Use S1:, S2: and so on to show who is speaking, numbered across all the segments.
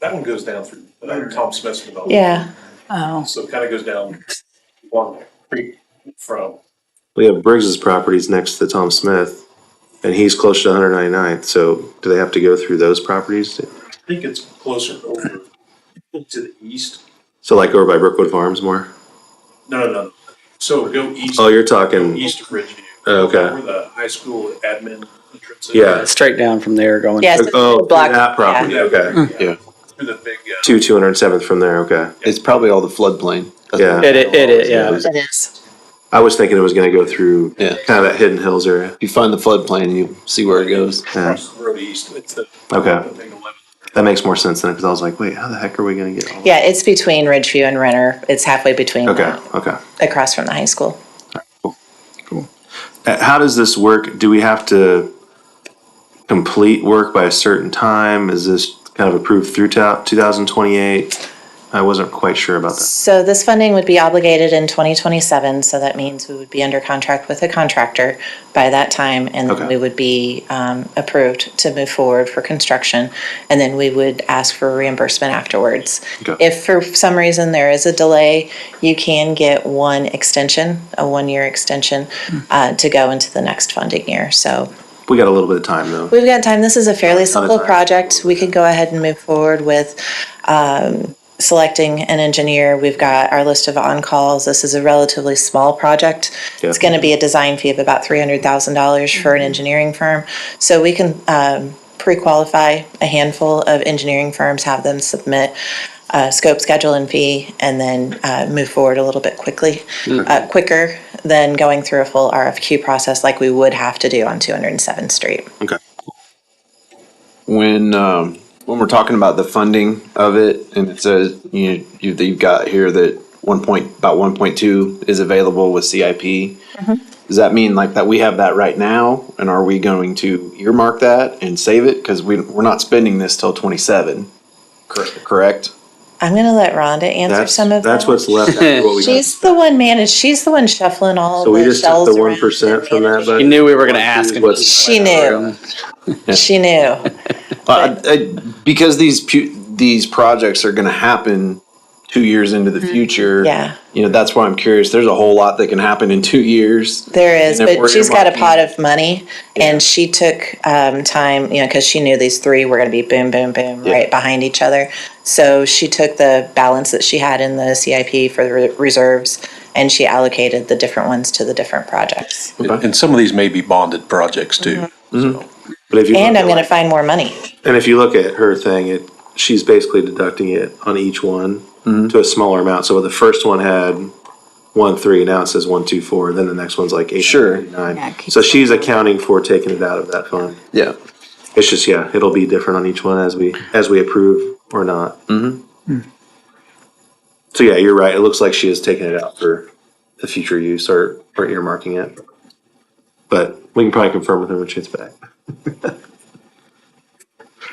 S1: That one goes down through uh, Tom Smith's development.
S2: Yeah,
S3: Oh,
S1: So it kind of goes down one creek from,
S4: We have Briggs's properties next to Tom Smith, and he's close to 199th, so do they have to go through those properties?
S1: I think it's closer over to the east.
S4: So like over by Brookwood Farms more?
S1: No, no, no. So go east,
S4: Oh, you're talking,
S1: east of Ridgeview.
S4: Okay.
S1: Where the high school admin entrance is.
S4: Yeah.
S5: straight down from there going.
S2: yes.
S4: oh,
S2: block,
S4: that property,
S1: yeah.
S4: okay.
S6: Yeah.
S1: Through the big, uh,
S4: Two 207th from there, okay.
S6: It's probably all the floodplain.
S4: Yeah.
S5: It, it, it, yeah.
S2: It is.
S4: I was thinking it was gonna go through
S6: Yeah.
S4: kind of that Hidden Hills area.
S6: You find the floodplain, you see where it goes.
S1: across the road east, it's the.
S4: Okay.
S1: the thing eleven.
S4: That makes more sense than it, because I was like, wait, how the heck are we gonna get all?
S2: Yeah, it's between Ridgeview and Renner. It's halfway between,
S4: Okay,
S2: that,
S4: okay.
S2: across from the high school.
S4: Uh, How does this work? Do we have to complete work by a certain time? Is this kind of approved through ta- 2028? I wasn't quite sure about that.
S2: So this funding would be obligated in 2027, so that means we would be under contract with a contractor by that time, and
S4: Okay.
S2: then we would be um, approved to move forward for construction, and then we would ask for reimbursement afterwards.
S4: Okay.
S2: If for some reason there is a delay, you can get one extension, a one-year extension,
S4: Hmm.
S2: uh, to go into the next funding year. So
S4: We got a little bit of time though.
S2: We've got time. This is a fairly simple
S4: time.
S2: project. We can go ahead and move forward with um, selecting an engineer. We've got our list of on-calls. This is a relatively small project. It's
S4: Yeah.
S2: going to be a design fee of about $300,000 for an engineering firm. So we can um, pre-qualify a handful of engineering firms, have them submit uh, scope, schedule, and fee, and then uh, move forward a little bit quickly, uh, quicker than going through a full RFQ process like we would have to do on 207th Street.
S4: Okay.
S6: When um, when we're talking about the funding of it, and it says you, you that you've got here that one point about one point two is available with CIP.
S5: Mm-hmm.
S6: Does that mean like that we have that right now, and are we going to earmark that and save it because we we're not spending this till twenty seven? Correct. Correct.
S2: I'm gonna let Rhonda answer
S4: That's,
S2: some of
S4: that's
S2: that.
S4: what's left after what we got.
S2: She's the one managed, she's the one shuffling all
S4: So we
S2: the
S4: just took
S2: shells
S4: the
S2: around.
S4: one percent from that,
S5: He
S4: but
S5: knew we were going to ask him.
S4: What's-
S2: She
S5: um,
S2: knew, she knew.
S6: Well, I, I, because these pu- these projects are going to happen two years into the future.
S2: Yeah.
S6: you know that's why I'm curious. There's a whole lot that can happen in two years.
S2: There is,
S6: And if we're
S2: but she's got a
S6: earmarking-
S2: pot of money and she took, um, time, you know, cause she knew these three were gonna be boom, boom, boom, right behind each other. So she took the balance that she had in the CIP for the re- reserves and she allocated the different ones to the different projects.
S4: Okay.
S7: And some of these may be bonded projects too. So
S4: but if you.
S2: And I'm
S4: look at
S2: gonna
S4: like-
S2: find more money.
S4: And if you look at her thing, it, she's basically deducting it on each one to a smaller amount. So the first one had one, three, now it says one, two, four, then the next one's like eight,
S6: Sure.
S4: nine.
S3: Yeah, it keeps
S4: So she's accounting for taking it out of that fund.
S6: Yeah,
S4: It's just, yeah, it'll be different on each one as we, as we approve or not. Mm-hmm. So yeah, you're right. It looks like she is taking it out for the future use or, or earmarking it. But we can probably confirm with her when she gets back.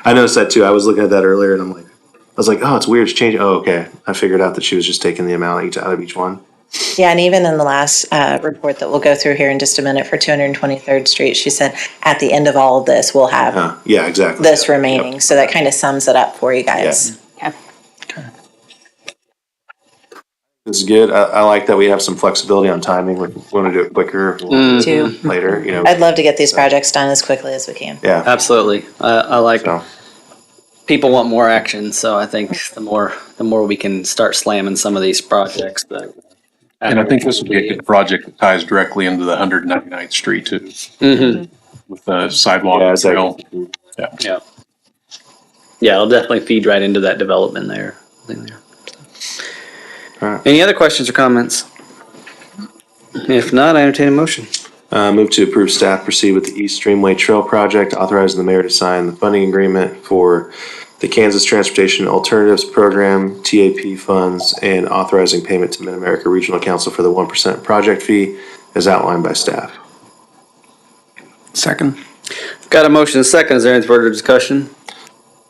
S4: I noticed that too. I was looking at that earlier and I'm like, I was like, oh, it's weird. It's changing. Oh, okay. I figured out that she was just taking the amount each out of each one.
S2: Yeah, and even in the last uh, report that we'll go through here in just a minute for 223rd Street, she said, at the end of all of this, we'll have
S4: Huh. Yeah, exactly.
S2: this remaining. So that kind of sums it up for you guys.
S3: okay.
S4: This is good. I, I like that we have some flexibility on timing. We want to do it quicker if we wanna do it later, you know.
S2: I'd love to get these projects done as quickly as we can.
S4: Yeah.
S5: Absolutely. I, I like
S4: So,
S5: people want more action, so I think the more the more we can start slamming some of these projects. That,
S7: And I think this would be a good project that ties directly into the 199th Street too,
S5: Mhm.
S7: with the sidewalk.
S4: Mm-hmm. Yeah, it's like-
S7: trail.
S5: Yeah. Yeah, it'll definitely feed right into that development there. I think there.
S4: Alright.
S5: Any other questions or comments? If not, I entertain a motion.
S4: uh, move to approve staff proceed with the East Streamway Trail Project, authorizing the mayor to sign the funding agreement for the Kansas Transportation Alternatives Program, TAP funds, and authorizing payment to Mid-America Regional Council for the one percent project fee as outlined by staff.
S5: Second. Got a motion and a second. Is there any further discussion?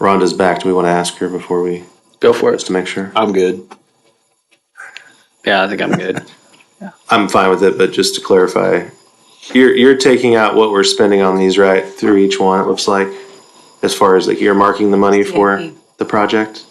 S4: Rhonda's back. Do we want to ask her before we,
S5: Go for
S4: just
S5: it.
S4: to make sure?
S6: I'm good.
S5: Yeah, I think I'm good.
S4: I'm fine with it, but just to clarify, you're, you're taking out what we're spending on these, right, through each one, it looks like? As far as like earmarking the money for
S3: Yeah.
S4: the project?